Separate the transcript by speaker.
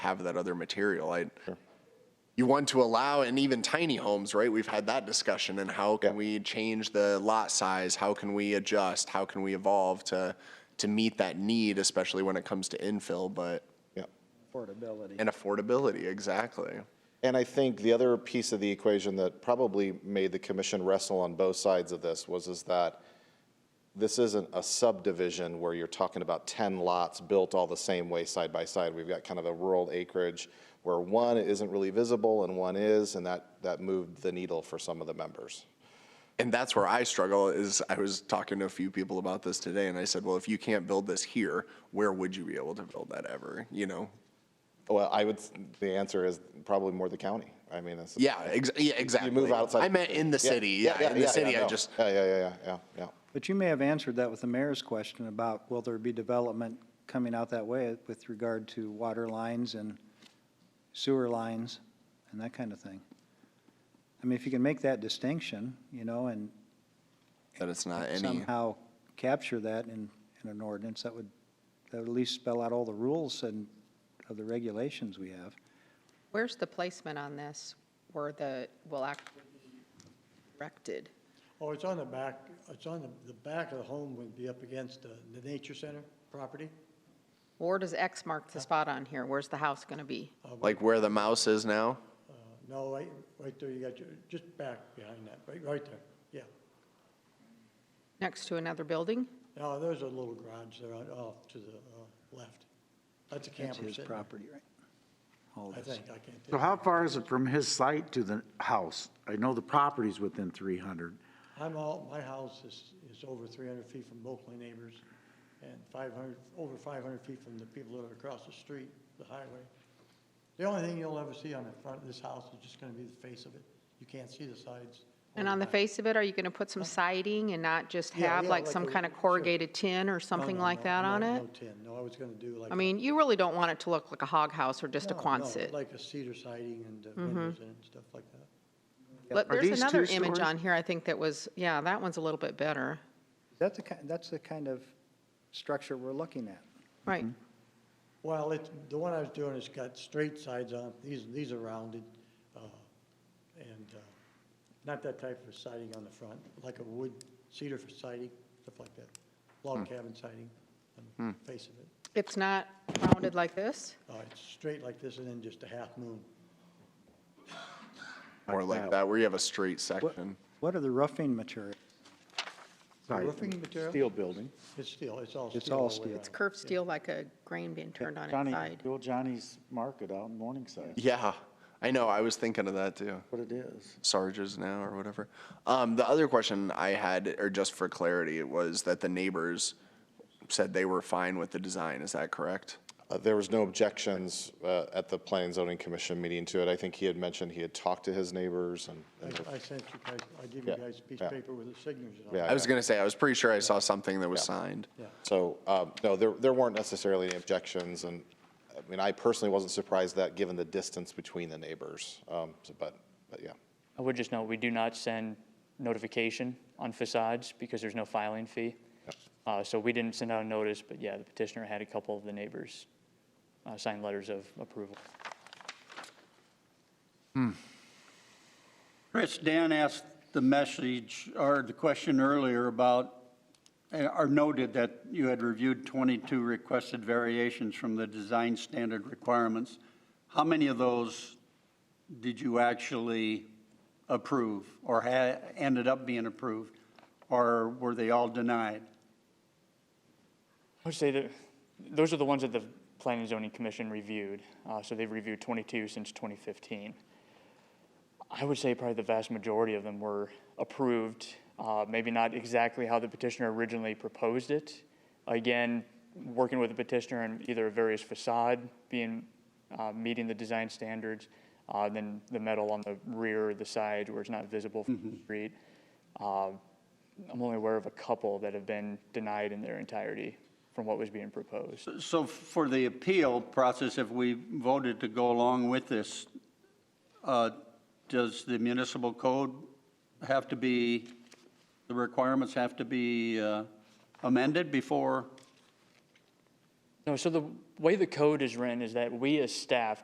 Speaker 1: have that other material. I, you want to allow, and even tiny homes, right? We've had that discussion, and how can
Speaker 2: Yeah.
Speaker 1: we change the lot size? How can we adjust? How can we evolve to, to meet that need, especially when it comes to infill, but,
Speaker 2: Yeah.
Speaker 3: affordability.
Speaker 1: and affordability, exactly.
Speaker 2: And I think the other piece of the equation that probably made the commission wrestle on both sides of this was is that this isn't a subdivision where you're talking about 10 lots built all the same way side by side. We've got kind of a rural acreage where one isn't really visible and one is, and that, that moved the needle for some of the members.
Speaker 1: And that's where I struggle is I was talking to a few people about this today and I said, well, if you can't build this here, where would you be able to build that ever? You know?
Speaker 2: Well, I would, the answer is probably more the county. I mean, it's.
Speaker 1: Yeah, ex- yeah, exactly.
Speaker 2: You move outside.
Speaker 1: I meant in the city. Yeah, in the city.
Speaker 2: no.
Speaker 1: I just
Speaker 2: Yeah, yeah, yeah, yeah, yeah, yeah.
Speaker 3: But you may have answered that with the mayor's question about will there be development coming out that way with regard to water lines and sewer lines and that kind of thing. I mean, if you can make that distinction, you know, and
Speaker 1: that it's not any.
Speaker 3: somehow capture that in, in an ordinance, that would, that would at least spell out all the rules and of the regulations we have.
Speaker 4: Where's the placement on this where the, will actually be erected?
Speaker 5: Oh, it's on the back, it's on the, the back of the home would be up against the, the nature center property.
Speaker 4: Where does X mark the spot on here? Where's the house going to be?
Speaker 1: Like where the mouse is now?
Speaker 5: Uh, No, right, right there, you got your, just back behind that, right, right there, yeah.
Speaker 4: Next to another building?
Speaker 5: Now, there's a little garage there on- off to the, uh, left. That's a
Speaker 3: That's
Speaker 5: camper
Speaker 3: his
Speaker 5: sitting there,
Speaker 3: property, right? All
Speaker 5: I
Speaker 3: this.
Speaker 5: think, I can't
Speaker 6: So
Speaker 5: tell.
Speaker 6: how far is it from his site to the house? I know the property's within 300.
Speaker 5: I'm all, my house is, is over three hundred feet from Oakley neighbors and five hundred, over five hundred feet from the people that are across the street, the highway. The only thing you'll ever see on the front of this house is just gonna be the face of it. You can't see the sides. or
Speaker 4: And on the
Speaker 5: back.
Speaker 4: face of it, are you going to put some siding and not just
Speaker 5: Yeah,
Speaker 4: have
Speaker 5: yeah,
Speaker 4: like
Speaker 5: like
Speaker 4: some
Speaker 5: a-
Speaker 4: kind of
Speaker 5: sure.
Speaker 4: corrugated tin or
Speaker 5: No,
Speaker 4: something
Speaker 5: no,
Speaker 4: like
Speaker 5: no,
Speaker 4: that
Speaker 5: no,
Speaker 4: on
Speaker 5: no
Speaker 4: it?
Speaker 5: tin. No, I was gonna do like.
Speaker 4: I
Speaker 5: a-
Speaker 4: mean, you really don't want it to look like a hog house or just a
Speaker 5: No, no,
Speaker 4: Quonset. Mm-hmm.
Speaker 5: Like a cedar siding and uh, windows in it and stuff like that.
Speaker 4: But
Speaker 6: Are
Speaker 4: there's
Speaker 6: these
Speaker 4: another
Speaker 6: two
Speaker 4: image
Speaker 6: stories?
Speaker 4: on here, I think that was, yeah, that one's a little bit better.
Speaker 3: That's the, ki- that's the kind of structure we're looking at.
Speaker 4: Right.
Speaker 6: Mm-hmm.
Speaker 5: Well, it's, the one I was doing has got straight sides on, it. these, these are rounded, uh, and, uh, not that type of siding on the front, like a wood cedar for siding, stuff like that. Log cabin siding on the face of it.
Speaker 4: It's not rounded like this?
Speaker 5: Uh, it's straight like this and then just a half moon.
Speaker 1: Or like that where you have a straight section.
Speaker 3: What are the roofing materials?
Speaker 6: Sorry.
Speaker 5: Roofing material?
Speaker 6: Steel building.
Speaker 5: It's steel, it's all steel.
Speaker 3: It's all
Speaker 5: the way
Speaker 3: steel.
Speaker 5: around.
Speaker 4: It's curved steel like a grain being turned on its
Speaker 6: Johnny,
Speaker 4: side.
Speaker 6: Bill Johnny's Market out in Morningside,
Speaker 1: Yeah, I know. I was thinking of that too.
Speaker 6: what it is.
Speaker 1: Sarge's now or whatever. Um, the other question I had, or just for clarity, was that the neighbors said they were fine with the design. Is that correct?
Speaker 2: Uh, There was no objections uh, at the Planning and Zoning Commission meeting to it. I think he had mentioned he had talked to his neighbors and, and-
Speaker 5: I, I sent you guys, I give you
Speaker 2: Yeah,
Speaker 5: guys a piece
Speaker 2: yeah.
Speaker 5: of paper with the signatures on it.
Speaker 2: Yeah.
Speaker 1: I was gonna say, I was pretty sure I saw something that was signed.
Speaker 2: so, um, no, there, there weren't necessarily any objections. And, I mean, I personally wasn't surprised that, given the distance between the neighbors. Um, so- But, but yeah.
Speaker 7: I would just note, we do not send notification on facades because there's no filing fee. Uh, So we didn't send out a notice, but yeah, the petitioner had a couple of the neighbors uh, sign letters of approval.
Speaker 8: Chris, Dan asked the message, or the question earlier about, eh, or noted that you had reviewed 22 requested variations from the design standard requirements. How many of those did you actually approve, or ha ended up being approved? Or were they all denied?
Speaker 7: I would say that, those are the ones that the Planning and Zoning Commission reviewed. Uh, So they've reviewed 22 since 2015. I would say probably the vast majority of them were approved, uh, maybe not exactly how the petitioner originally proposed it. Again, working with the petitioner on either a various facade being, uh, meeting the design standards, uh, then the metal on the rear or the side where it's not visible from the street. Uh, I'm only aware of a couple that have been denied in their entirety from what was being proposed.
Speaker 8: So for the appeal process, if we voted to go along with this, uh, does the municipal code have to be, the requirements have to be uh, amended before?
Speaker 7: No, so the way the code is written is that we as staff